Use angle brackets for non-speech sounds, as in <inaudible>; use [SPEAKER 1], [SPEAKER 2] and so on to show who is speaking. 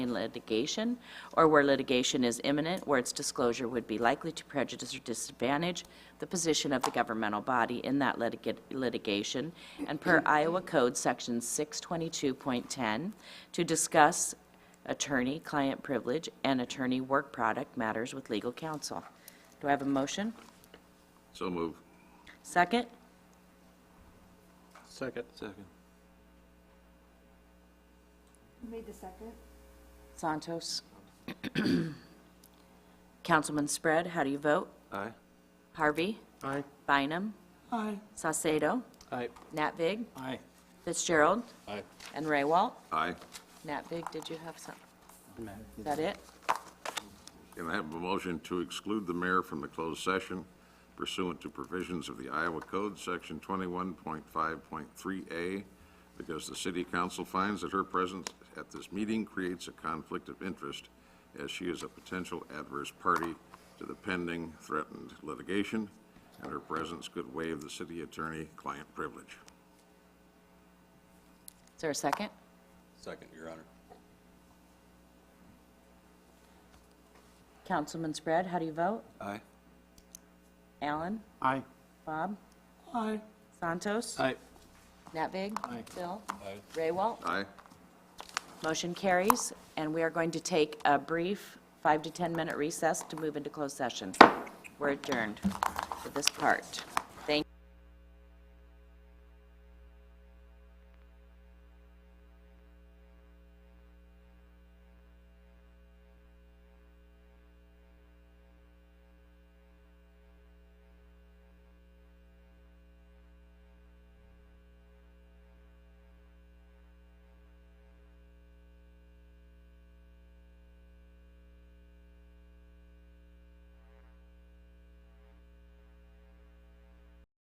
[SPEAKER 1] in litigation, or where litigation is imminent, where its disclosure would be likely to prejudice or disadvantage the position of the governmental body in that litiga- litigation, and per Iowa Code Section 622.10, to discuss attorney-client privilege and attorney work product matters with legal counsel. Do I have a motion?
[SPEAKER 2] So move.
[SPEAKER 1] Second?
[SPEAKER 2] Second. Second.
[SPEAKER 3] Who made the second?
[SPEAKER 1] Santos? <clears throat> Councilman Spread, how do you vote?
[SPEAKER 2] Aye.
[SPEAKER 1] Harvey?
[SPEAKER 4] Aye.
[SPEAKER 1] Bynum?
[SPEAKER 4] Aye.
[SPEAKER 1] Sosado?
[SPEAKER 4] Aye.
[SPEAKER 1] Nat Vig?
[SPEAKER 4] Aye.
[SPEAKER 1] Fitzgerald?
[SPEAKER 4] Aye.
[SPEAKER 1] And Ray Walt?
[SPEAKER 2] Aye.
[SPEAKER 1] Nat Vig, did you have some? Is that it?
[SPEAKER 2] Can I have a motion to exclude the mayor from the closed session pursuant to provisions of the Iowa Code, Section 21.5.3A, because the city council finds that her presence at this meeting creates a conflict of interest as she is a potential adverse party to the pending threatened litigation, and her presence could waive the city attorney-client privilege.
[SPEAKER 1] Is there a second?
[SPEAKER 5] Second, Your Honor.
[SPEAKER 1] Councilman Spread, how do you vote?
[SPEAKER 5] Aye.
[SPEAKER 1] Alan?
[SPEAKER 4] Aye.
[SPEAKER 1] Bob?
[SPEAKER 4] Aye.
[SPEAKER 1] Santos?
[SPEAKER 4] Aye.
[SPEAKER 1] Nat Vig?
[SPEAKER 4] Aye.
[SPEAKER 1] Bill? Ray Walt?
[SPEAKER 2] Aye?
[SPEAKER 1] Motion carries, and we are going to take a brief five to 10-minute recess to move into closed session. We're adjourned for this part.